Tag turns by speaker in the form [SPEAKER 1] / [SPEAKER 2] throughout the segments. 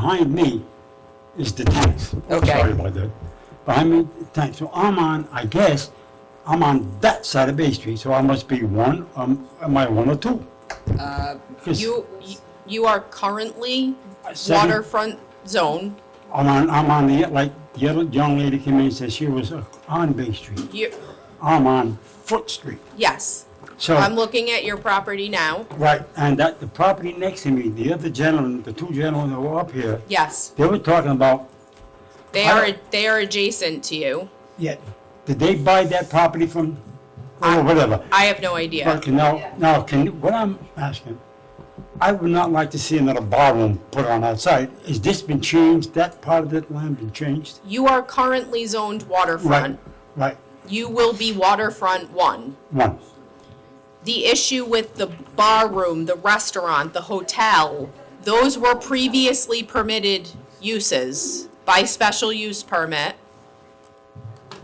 [SPEAKER 1] behind me is the tanks.
[SPEAKER 2] Okay.
[SPEAKER 1] Sorry about that. Behind me, the tanks. So I'm on, I guess, I'm on that side of Bay Street, so I must be one, um, am I one or two? Yes.
[SPEAKER 3] Uh, You, you are currently
[SPEAKER 1] Seven.
[SPEAKER 3] waterfront zone.
[SPEAKER 1] I'm on, I'm on the, like, the other young lady came in and said she was uh, on Bay Street.
[SPEAKER 3] You,
[SPEAKER 1] I'm on Foot Street.
[SPEAKER 3] yes.
[SPEAKER 1] So.
[SPEAKER 3] I'm looking at your property now.
[SPEAKER 1] Right, and that, the property next to me, the other gentleman, the two gentlemen that were up here,
[SPEAKER 3] Yes,
[SPEAKER 1] they were talking about,
[SPEAKER 3] they
[SPEAKER 1] I
[SPEAKER 3] are,
[SPEAKER 1] don't-
[SPEAKER 3] they are adjacent to you.
[SPEAKER 1] yeah, did they buy that property from, or whatever?
[SPEAKER 3] I have no idea.
[SPEAKER 1] But now, now, can, what I'm asking, I would not like to see another barroom put on that site. Has this been changed, that part of that land been changed?
[SPEAKER 3] You are currently zoned
[SPEAKER 1] Right,
[SPEAKER 3] waterfront.
[SPEAKER 1] right,
[SPEAKER 3] You will be waterfront one.
[SPEAKER 1] one,
[SPEAKER 3] The issue with the bar room, the restaurant, the hotel, those were previously permitted uses by special use permit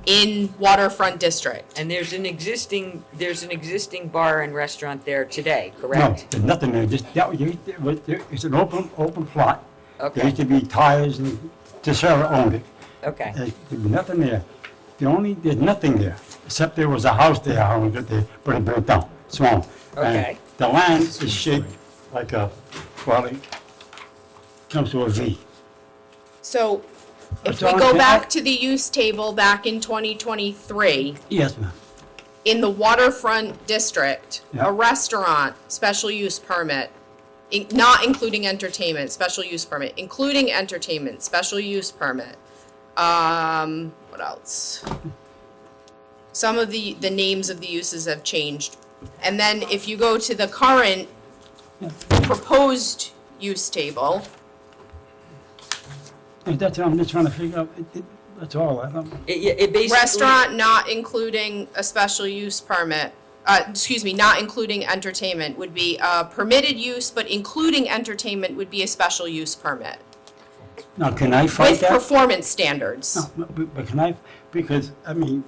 [SPEAKER 3] in waterfront district.
[SPEAKER 2] And there's an existing, there's an existing bar and restaurant there today,
[SPEAKER 1] no,
[SPEAKER 2] correct?
[SPEAKER 1] there's nothing there, just, that, was- it was- it's an open, open plot. There
[SPEAKER 2] Okay.
[SPEAKER 1] used to be tires and, DeSera owned it.
[SPEAKER 2] Okay,
[SPEAKER 1] There's nothing there. The only, there's nothing there, except there was a house there, I don't get there, but it burnt down, small. And
[SPEAKER 2] Okay.
[SPEAKER 1] The land is shaped like a, well, it comes to a V.
[SPEAKER 3] So if we
[SPEAKER 1] John,
[SPEAKER 3] go
[SPEAKER 1] can I-
[SPEAKER 3] back to the use table back in 2023,
[SPEAKER 1] Yes, ma'am.
[SPEAKER 3] in the waterfront district,
[SPEAKER 1] Yeah.
[SPEAKER 3] a restaurant, special use permit, in- not including entertainment, special use permit, including entertainment, special use permit. Um, what else? Some of the, the names of the uses have changed. And then if you go to the current proposed use table,
[SPEAKER 1] And That's what I'm just trying to figure out, It- it- that's all, I don't,
[SPEAKER 2] it, yeah, it basically.
[SPEAKER 3] Restaurant not including a special use permit, uh, excuse me, not including entertainment would be, uh, permitted use, but including entertainment would be a special use permit.
[SPEAKER 1] now, can I fight
[SPEAKER 3] With
[SPEAKER 1] that?
[SPEAKER 3] performance standards.
[SPEAKER 1] No,
[SPEAKER 4] Oh,
[SPEAKER 1] but, but can I, because, I mean,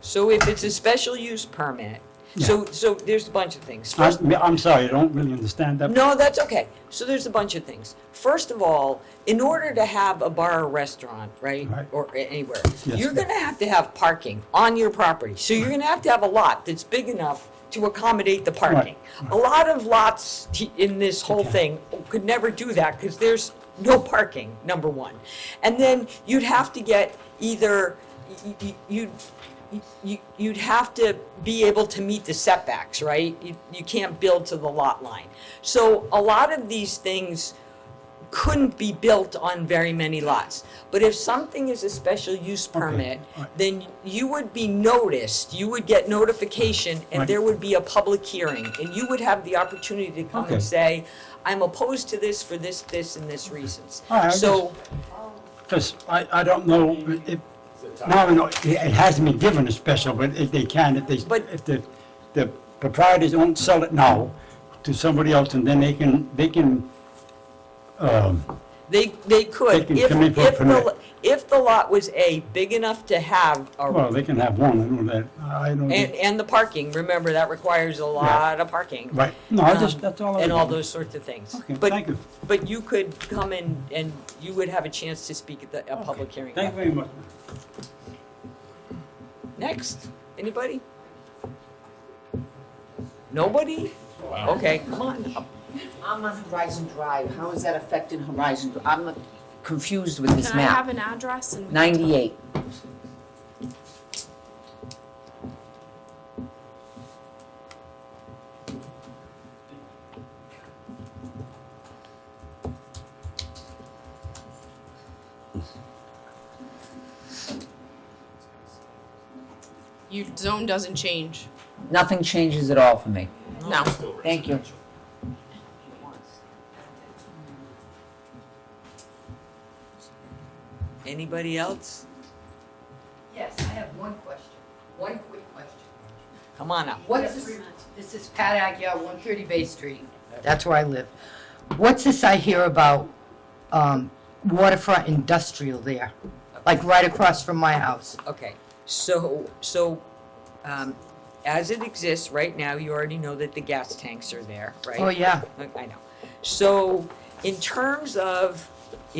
[SPEAKER 2] So if it's a special use permit, so, so there's a bunch of things.
[SPEAKER 1] I,
[SPEAKER 2] First,
[SPEAKER 1] I'm sorry, I don't really understand that.
[SPEAKER 2] no, that's okay. So there's a bunch of things. First of all, in order to have a bar or restaurant, right,
[SPEAKER 1] Right.
[SPEAKER 2] or a- anywhere,
[SPEAKER 1] Yes.
[SPEAKER 2] you're gonna have to have parking on your property. So you're gonna have to have a lot that's big enough to accommodate the parking. A lot of lots t- in this whole thing could never do that because there's no parking, number one. And then you'd have to get either, y- y- you'd, you- you'd have to be able to meet the setbacks, right? You, you can't build to the lot line. So a lot of these things couldn't be built on very many lots. But if something is a special use permit,
[SPEAKER 1] alright.
[SPEAKER 2] then you would be noticed, you would get notification,
[SPEAKER 1] Right.
[SPEAKER 2] and there would be a public hearing. And you would have the opportunity to come
[SPEAKER 1] Okay.
[SPEAKER 2] and say, I'm opposed to this for this, this, and this reasons.
[SPEAKER 1] Alright, I
[SPEAKER 2] So,
[SPEAKER 1] Because I, I don't know, if, now, you know, it it hasn't been given a special, but if they can, if they,
[SPEAKER 2] But-
[SPEAKER 1] if the, the proprietors don't sell it now to somebody else, and then they can, they can,
[SPEAKER 2] They, they could,
[SPEAKER 1] They can
[SPEAKER 2] if,
[SPEAKER 1] come in for a
[SPEAKER 2] if the,
[SPEAKER 1] permit.
[SPEAKER 2] lo- if the lot was A, big enough to have
[SPEAKER 1] well,
[SPEAKER 2] a,
[SPEAKER 1] they can have one, I know that, I don't.
[SPEAKER 2] and, and the parking, remember, that requires a lot of parking.
[SPEAKER 1] Right, no, I just,
[SPEAKER 2] um,
[SPEAKER 1] that's all I.
[SPEAKER 2] And all
[SPEAKER 1] was-
[SPEAKER 2] those sorts of things.
[SPEAKER 1] Okay,
[SPEAKER 2] But-
[SPEAKER 1] thank you.
[SPEAKER 2] But you could come in and you would have a chance to speak at the, a public hearing.
[SPEAKER 1] Thank you very much.
[SPEAKER 2] Next, anybody? Nobody? Okay, come on up.
[SPEAKER 4] I'm on Horizon Drive, how is that affecting Horizon? Dri- I'm confused with this map.
[SPEAKER 3] an address and?
[SPEAKER 4] 98.
[SPEAKER 3] Your zone doesn't change.
[SPEAKER 4] Nothing changes at all for me.
[SPEAKER 3] No.
[SPEAKER 4] Thank you.
[SPEAKER 2] Anybody else?
[SPEAKER 5] Yes, I have one question, one quick question.
[SPEAKER 2] Come on up.
[SPEAKER 5] What's this, this is Pat Agia, one thirty Bay Street. That's where I live. What's this I hear about, um, waterfront industrial there? Like right across from my house?
[SPEAKER 2] Okay, so, so, um, as it exists right now, you already know that the gas tanks are there, right?
[SPEAKER 5] Oh, yeah.
[SPEAKER 2] I I know. So in terms of